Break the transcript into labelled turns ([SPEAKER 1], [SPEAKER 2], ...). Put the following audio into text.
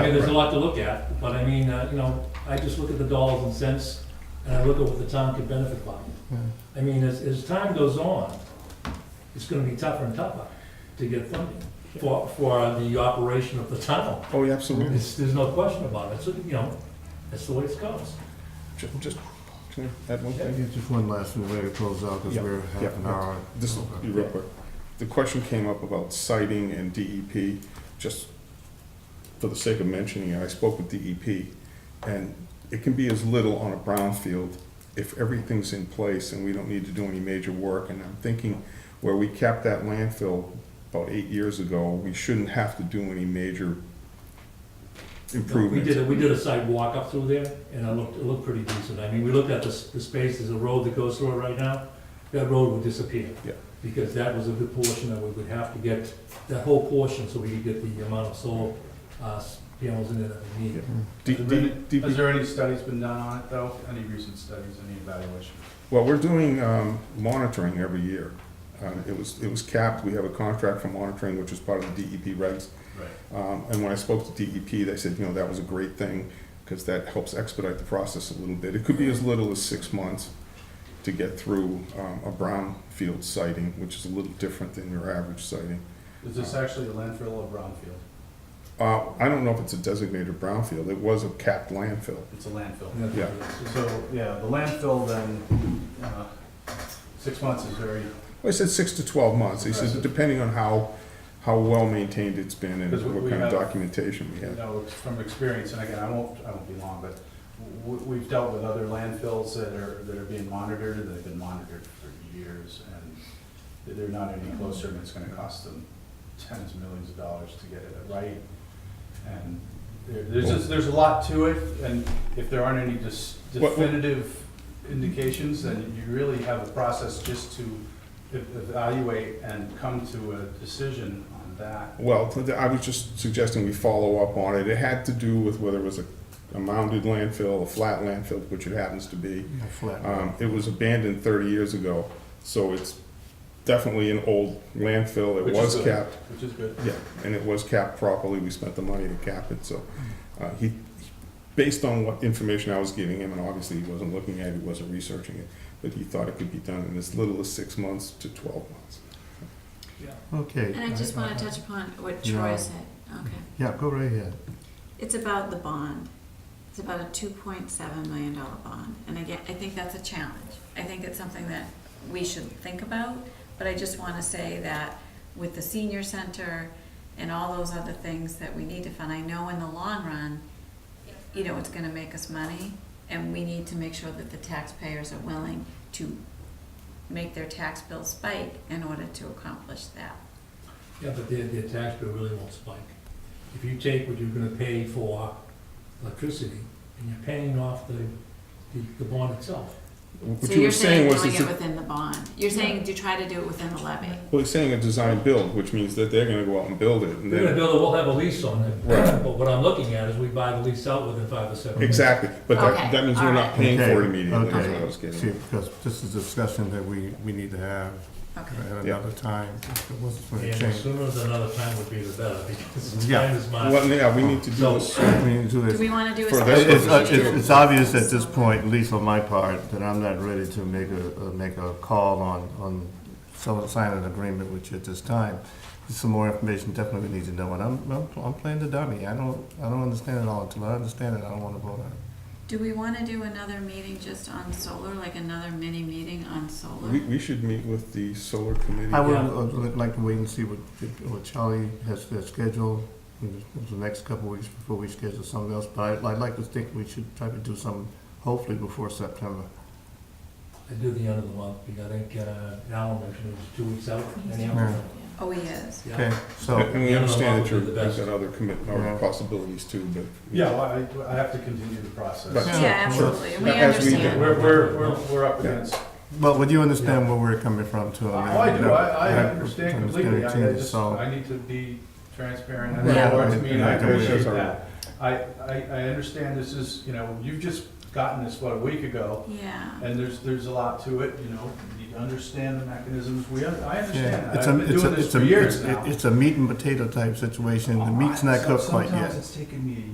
[SPEAKER 1] I mean, there's a lot to look at, but I mean, uh, you know, I just look at the dollars and cents, and I look at what the town could benefit by. I mean, as, as time goes on, it's gonna be tougher and tougher to get funding for, for the operation of the town.
[SPEAKER 2] Oh, yeah, absolutely.
[SPEAKER 1] It's, there's no question about it, so, you know, that's the way it goes.
[SPEAKER 2] Ju- Just, can I add one thing?
[SPEAKER 3] Yeah, Just one last thing, we're gonna close out, because
[SPEAKER 2] Yeah,
[SPEAKER 3] we're
[SPEAKER 2] yeah,
[SPEAKER 3] half an
[SPEAKER 2] yeah.
[SPEAKER 3] hour.
[SPEAKER 2] This will be real quick. The question came up about citing and DEP, just for the sake of mentioning it, I spoke with DEP, and it can be as little on a brownfield if everything's in place and we don't need to do any major work. And I'm thinking where we capped that landfill about eight years ago, we shouldn't have to do any major
[SPEAKER 1] We
[SPEAKER 2] improvements.
[SPEAKER 1] did, a- we did a sidewalk up through there, and it looked, it looked pretty decent. I mean, we looked at the, s- the space, there's a road that goes through it right now, that road would disappear.
[SPEAKER 2] Yeah.
[SPEAKER 1] Because that was a good portion that we would have to get, that whole portion, so we could get the amount of solar, uh, s- panels in there that we need.
[SPEAKER 2] D- D- DEP
[SPEAKER 4] Has there any studies been done on it though? Any recent studies, any evaluation?
[SPEAKER 2] Well, we're doing um, monitoring every year. Uh, It was, it was capped, we have a contract for monitoring, which is part of the DEP regs.
[SPEAKER 4] Right.
[SPEAKER 2] Um, And when I spoke to DEP, they said, you know, that was a great thing, because that helps expedite the process a little bit. It could be as little as six months to get through um, a brownfield sighting, which is a little different than your average sighting.
[SPEAKER 4] Is this actually a landfill or brownfield?
[SPEAKER 2] Uh, I don't know if it's a designated brownfield, it was a capped landfill.
[SPEAKER 4] It's a landfill.
[SPEAKER 1] And that's-
[SPEAKER 2] Yeah.
[SPEAKER 4] So, yeah, the landfill then, uh, six months is very,
[SPEAKER 2] Well, I said six to 12 months, he says,
[SPEAKER 4] Impressive.
[SPEAKER 2] depending on how, how well-maintained it's been and
[SPEAKER 4] 'Cause we-
[SPEAKER 2] what
[SPEAKER 4] we
[SPEAKER 2] kind of
[SPEAKER 4] have-
[SPEAKER 2] documentation we
[SPEAKER 4] you
[SPEAKER 2] have.
[SPEAKER 4] know, from experience, and again, I won't, I won't be long, but w- we've dealt with other landfills that are, that are being monitored, and they've been monitored for years, and they're not any closer, and it's gonna cost them tens of millions of dollars to get it right. And there, there's just, there's a lot to it, and if there aren't any dis-
[SPEAKER 2] What- what-
[SPEAKER 4] definitive indications, then you really have a process just to e- evaluate and come to a decision on that.
[SPEAKER 2] Well, th- I was just suggesting we follow up on it. It had to do with whether it was a, a mounded landfill, a flat landfill, which it happens to be.
[SPEAKER 3] Yeah, Flat.
[SPEAKER 2] Um, it was abandoned thirty years ago, so it's definitely an old landfill. It
[SPEAKER 4] Which is
[SPEAKER 2] was
[SPEAKER 4] good.
[SPEAKER 2] capped,
[SPEAKER 4] Which is good.
[SPEAKER 2] yeah, and it was capped properly. We spent the money to cap it, so, uh, he, he- based on what information I was giving him, and obviously he wasn't looking at it, he wasn't researching it, but he thought it could be done in as little as six months to twelve months.
[SPEAKER 3] Okay.
[SPEAKER 5] And I just want to touch upon what Troy
[SPEAKER 3] Yeah.
[SPEAKER 5] said, okay.
[SPEAKER 3] Yeah, go right ahead.
[SPEAKER 5] It's about the bond. It's about a two point seven million dollar bond. And again, I think that's a challenge. I think it's something that we should think about, but I just want to say that with the senior center and all those other things that we need to fund, I know in the long run, you know, it's going to make us money, and we need to make sure that the taxpayers are willing to make their tax bill spike in order to accomplish that.
[SPEAKER 1] Yeah, but their, their tax bill really won't spike. If you take what you're gonna pay for electricity, and you're paying off the, the, the bond itself.
[SPEAKER 2] What
[SPEAKER 5] So
[SPEAKER 2] you
[SPEAKER 5] you're
[SPEAKER 2] were saying
[SPEAKER 5] saying
[SPEAKER 2] was,
[SPEAKER 5] doing
[SPEAKER 2] it's a-
[SPEAKER 5] it within the bond. You're saying to try to do it within the levy.
[SPEAKER 2] Well, he's saying a design build, which means that they're gonna go out and build it, and
[SPEAKER 1] We're gonna
[SPEAKER 2] then,
[SPEAKER 1] build it, we'll have a lease on it,
[SPEAKER 2] Right.
[SPEAKER 1] but what I'm looking at is we buy the lease out within five or seven. years.
[SPEAKER 2] exactly, but that,
[SPEAKER 5] Okay,
[SPEAKER 2] that means we're not
[SPEAKER 5] alright.
[SPEAKER 2] paying for it
[SPEAKER 3] Okay,
[SPEAKER 2] immediately, is what
[SPEAKER 3] okay.
[SPEAKER 2] I was getting at.
[SPEAKER 3] See, because this is a discussion that we, we need to have
[SPEAKER 5] Okay.
[SPEAKER 3] at
[SPEAKER 2] Yeah.
[SPEAKER 3] another time. It wasn't for a
[SPEAKER 1] And the
[SPEAKER 3] change.
[SPEAKER 1] sooner than another time would be the better, because
[SPEAKER 3] Yeah.
[SPEAKER 1] time is money.
[SPEAKER 2] Well, yeah, we need to do
[SPEAKER 1] So-
[SPEAKER 2] this,
[SPEAKER 3] We need to do
[SPEAKER 5] Do
[SPEAKER 3] this.
[SPEAKER 5] we want to do a?
[SPEAKER 2] For
[SPEAKER 5] separate
[SPEAKER 2] this
[SPEAKER 3] It's, uh,
[SPEAKER 2] purpose,
[SPEAKER 3] it's,
[SPEAKER 5] motion?
[SPEAKER 3] it's obvious at this point, at least on my part, that I'm not ready to make a, uh, make a call on, on some, sign an agreement with you at this time. Some more information definitely we need to know, and I'm, I'm, I'm playing the dummy. I don't, I don't understand it all. Until I understand it, I don't wanna vote on it.
[SPEAKER 5] Do we want to do another meeting just on solar, like another mini meeting on
[SPEAKER 2] we,
[SPEAKER 5] solar?
[SPEAKER 2] we should meet with the solar committee.
[SPEAKER 3] I would
[SPEAKER 1] Yeah.
[SPEAKER 3] uh, li- like to wait and see what, what Charlie has, has scheduled in the- the next couple of weeks before we schedule something else, but I'd, I'd like to think we should try to do something hopefully before September.
[SPEAKER 1] I do the end of the month, because I think, uh, Alan mentioned it was two weeks out. anyhow.
[SPEAKER 3] Yeah.
[SPEAKER 5] Oh, he is.
[SPEAKER 1] Yeah.
[SPEAKER 3] Okay, so,
[SPEAKER 2] And we
[SPEAKER 1] Yeah, no,
[SPEAKER 2] understand
[SPEAKER 1] that would
[SPEAKER 2] that you're,
[SPEAKER 1] be the
[SPEAKER 2] you've
[SPEAKER 1] best.
[SPEAKER 2] got other commitment, or
[SPEAKER 3] Yeah.
[SPEAKER 2] possibilities too, but.
[SPEAKER 4] Yeah, well, I, I have to continue the
[SPEAKER 2] Right.
[SPEAKER 4] process.
[SPEAKER 3] Yeah,
[SPEAKER 5] Yeah,
[SPEAKER 3] sure.
[SPEAKER 5] absolutely. We
[SPEAKER 2] As we do.
[SPEAKER 5] understand.
[SPEAKER 4] We're, we're, we're, we're up against,
[SPEAKER 3] but would you understand where we're coming from too?
[SPEAKER 4] oh,
[SPEAKER 3] mean,
[SPEAKER 4] I do, I, I
[SPEAKER 3] yeah,
[SPEAKER 4] understand
[SPEAKER 3] it's gonna
[SPEAKER 4] completely, I I
[SPEAKER 3] change,
[SPEAKER 4] just,
[SPEAKER 3] so-
[SPEAKER 4] I need to be transparent, I
[SPEAKER 5] Yeah.
[SPEAKER 4] know what it means,
[SPEAKER 2] Yeah.
[SPEAKER 4] I appreciate
[SPEAKER 2] Yeah.
[SPEAKER 4] that. I, I, I understand this is, you know, you've just gotten this, what, a week ago,
[SPEAKER 5] Yeah.
[SPEAKER 4] and there's, there's a lot to it, you know, you need to understand the mechanisms, we, un- I
[SPEAKER 3] Yeah,
[SPEAKER 4] understand that,
[SPEAKER 3] it's
[SPEAKER 4] I've
[SPEAKER 3] a,
[SPEAKER 4] been
[SPEAKER 3] it's a,
[SPEAKER 4] doing this
[SPEAKER 3] it's
[SPEAKER 4] for
[SPEAKER 3] a, it's,
[SPEAKER 4] years now.
[SPEAKER 3] it- it's a meat and potato type situation, the meat's not cooked quite yet.
[SPEAKER 4] Oh, Sometimes it's taken me a